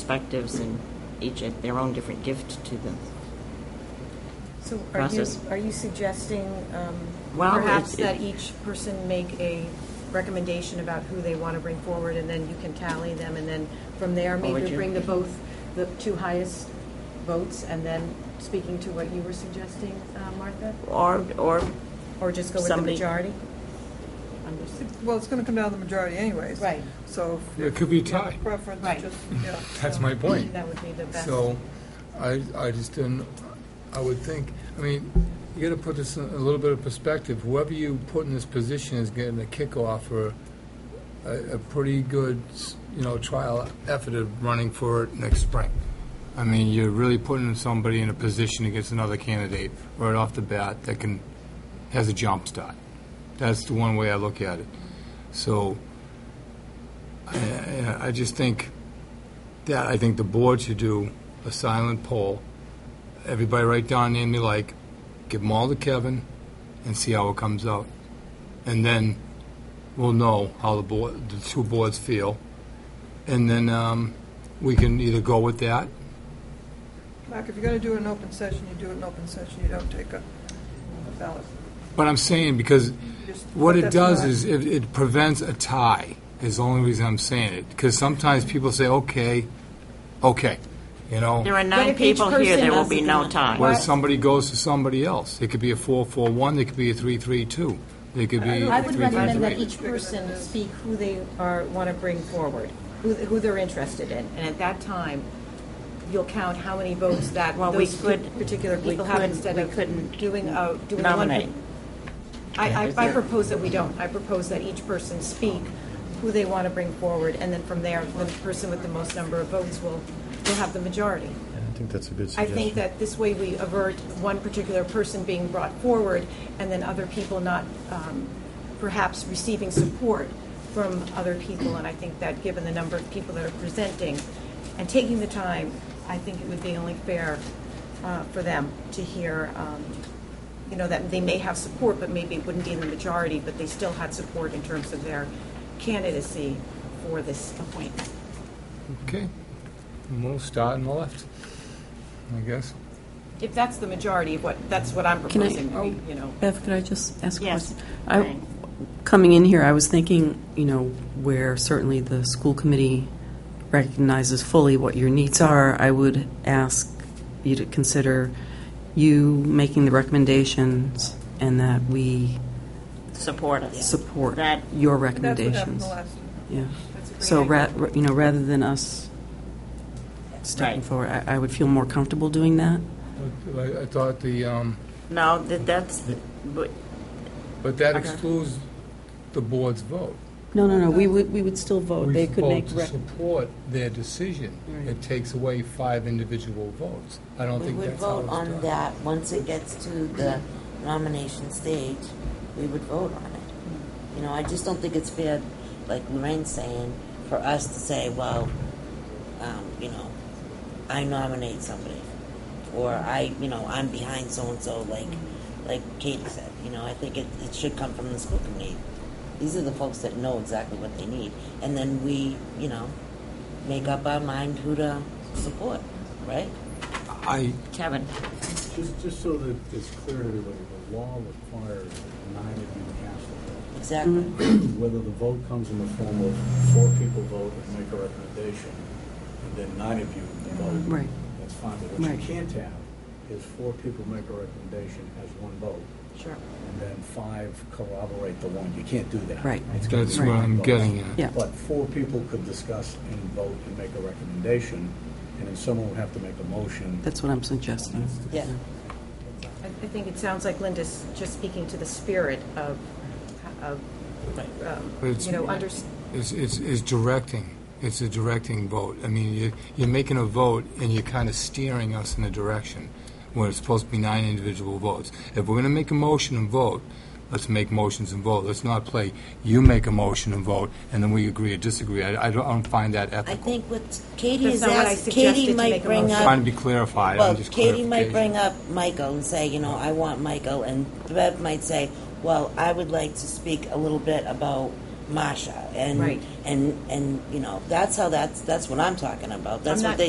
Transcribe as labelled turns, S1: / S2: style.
S1: perspectives and each at their own different gift to them.
S2: So are you,
S1: process.
S2: are you suggesting um,
S1: Well,
S2: perhaps
S1: it- it-
S2: that each person make a recommendation about who they want to bring forward, and then you can tally them, and then from there,
S1: What would
S2: maybe
S1: you-
S2: bring the both, the two highest votes, and then speaking to what you were suggesting, uh, Martha?
S1: Or, or
S2: Or just go with the
S1: Somebody-
S2: majority? I'm just-
S3: Well, it's going to come down to the majority anyways.
S2: Right.
S3: So. if-
S4: It could be a tie.
S3: Preference,
S2: Right.
S3: just, yeah.
S4: That's my point.
S2: That would be the best.
S4: So I, I just didn't, I would think, I mean, you gotta put this in a little bit of perspective. Whoever you put in this position is getting a kickoff or a, a pretty good, you know, trial effort of running for it next spring. I mean, you're really putting somebody in a position against another candidate right off the bat that can, has a jump start. That's the one way I look at it. So I- I, I just think that I think the board should do a silent poll. Everybody write down name they like, give them all to Kevin, and see how it comes out. And then we'll know how the board, the two boards feel. And then um, we can either go with that.
S3: Mark, if you're going to do it in open session, you do it in open session, you don't take a a ballot.
S4: But I'm saying because
S3: Just-
S4: what it
S3: that's
S4: does
S3: not-
S4: is it, it prevents a tie. Is the only reason I'm saying it because sometimes people say, "Okay, okay," you know.
S1: there are nine
S2: if each
S1: people here,
S2: person
S1: there will
S2: does
S1: be
S2: it
S1: no
S2: on-
S1: tie.
S4: Where somebody goes to somebody else. It could be a four-four-one, it could be a three-three-two, it could be
S2: I would recommend that
S4: three-three-three.
S2: each person speak who they are, want to bring forward, who, who they're interested in, and at that time, you'll count how many votes that
S1: Well, we
S2: those
S1: could-
S2: particular
S1: we
S2: people have
S1: couldn't-
S2: instead
S1: we
S2: of
S1: couldn't
S2: doing a, doing one.
S1: nominate.
S2: I, I, I propose that we don't. I propose that each person speak who they want to bring forward, and then from there, the person with the most number of votes will, will have the majority.
S5: I think that's a good
S2: I
S5: suggestion.
S2: think that this way we avert one particular person being brought forward and then other people not um, perhaps receiving support from other people. And I think that, given the number of people that are presenting and taking the time, I think it would be only fair uh, for them to hear, um, you know, that they may have support, but maybe it wouldn't be in the majority, but they still had support in terms of their candidacy for this appointment.
S4: Okay, And we'll start on the left, I guess.
S2: If that's the majority of what, that's what I'm
S6: Can I- oh,
S2: proposing, we- you know.
S6: Beth, could I just ask a
S1: Yes,
S6: question? I-
S1: Lorraine.
S6: Coming in here, I was thinking, you know, where certainly the school committee recognizes fully what your needs are, I would ask you to consider you making the recommendations and that we
S1: Support us.
S6: support
S1: That-
S6: your
S3: That's what happened
S6: recommendations.
S3: the last.
S6: Yeah.
S2: That's a great
S6: So, ra-
S2: idea.
S6: ra- you know, rather than us stepping
S1: Right.
S6: forward, I I would feel more comfortable doing that.
S4: I I thought the, um,
S1: No, that, that's, but
S4: but that
S1: Okay.
S4: excludes the board's vote.
S6: No, no, no, we
S2: Uh,
S6: would, we would still vote.
S4: We
S6: They could make,
S4: vote to
S6: rec-
S4: support their decision. It takes away five individual votes. I don't
S7: We
S4: think
S7: would
S4: that's how
S7: vote
S4: it's
S7: on
S4: done.
S7: that, once it gets to the nomination stage, we would vote on it. You know, I just don't think it's fair, like Lorraine's saying, for us to say, well, um, you know, I nominate somebody, or I, you know, I'm behind so-and-so, like,
S4: Mm-hmm.
S7: like Katie said, you know, I think it, it should come from the school committee. These are the folks that know exactly what they need, and then we, you know, make up our mind who to support, right?
S4: I,
S1: Kevin,
S8: Just, just so that it's clear to everybody, the law requires that nine of you cast a
S7: Exactly.
S2: Mm-hmm.
S8: vote. Whether the vote comes in the form of four people vote and make a recommendation, and then nine of you vote.
S6: Right.
S8: That's fine, but what you
S6: Right.
S8: can't have is four people make a recommendation as one vote,
S7: Sure.
S8: and then five corroborate the one. You can't do that.
S6: Right.
S8: It's gotta
S4: that's
S8: be
S4: what
S8: nine
S4: I'm
S8: votes.
S4: getting at.
S6: Yeah.
S8: But four people could discuss and vote and make a recommendation, and then someone would have to make a motion.
S6: that's what I'm suggesting.
S7: Yeah.
S2: I I think it sounds like Linda's just speaking to the spirit of, of, um,
S4: But it's-
S2: you know, under,
S4: It's, it's, it's directing. It's a directing vote. I mean, you, you're making a vote and you're kind of steering us in a direction where it's supposed to be nine individual votes. If we're going to make a motion and vote, let's make motions and vote. Let's not play, you make a motion and vote, and then we agree or disagree. I, I don't, I don't find that
S7: I
S4: ethical.
S7: think what Katie
S2: That's
S7: is
S2: not what I
S7: asking,
S2: suggested
S7: Katie
S2: to make
S7: might
S2: a
S7: bring
S2: motion.
S7: up.
S4: Trying to be clarified. I'm
S7: Well,
S4: just
S7: Katie might
S4: clarification.
S7: bring up Michael and say, you know, I want Michael, and Bev might say, well, I would like to speak a little bit about Masha and
S2: Right.
S7: and and you know that's how that's that's what I'm talking about. That's
S2: I'm
S7: what
S2: not-
S7: they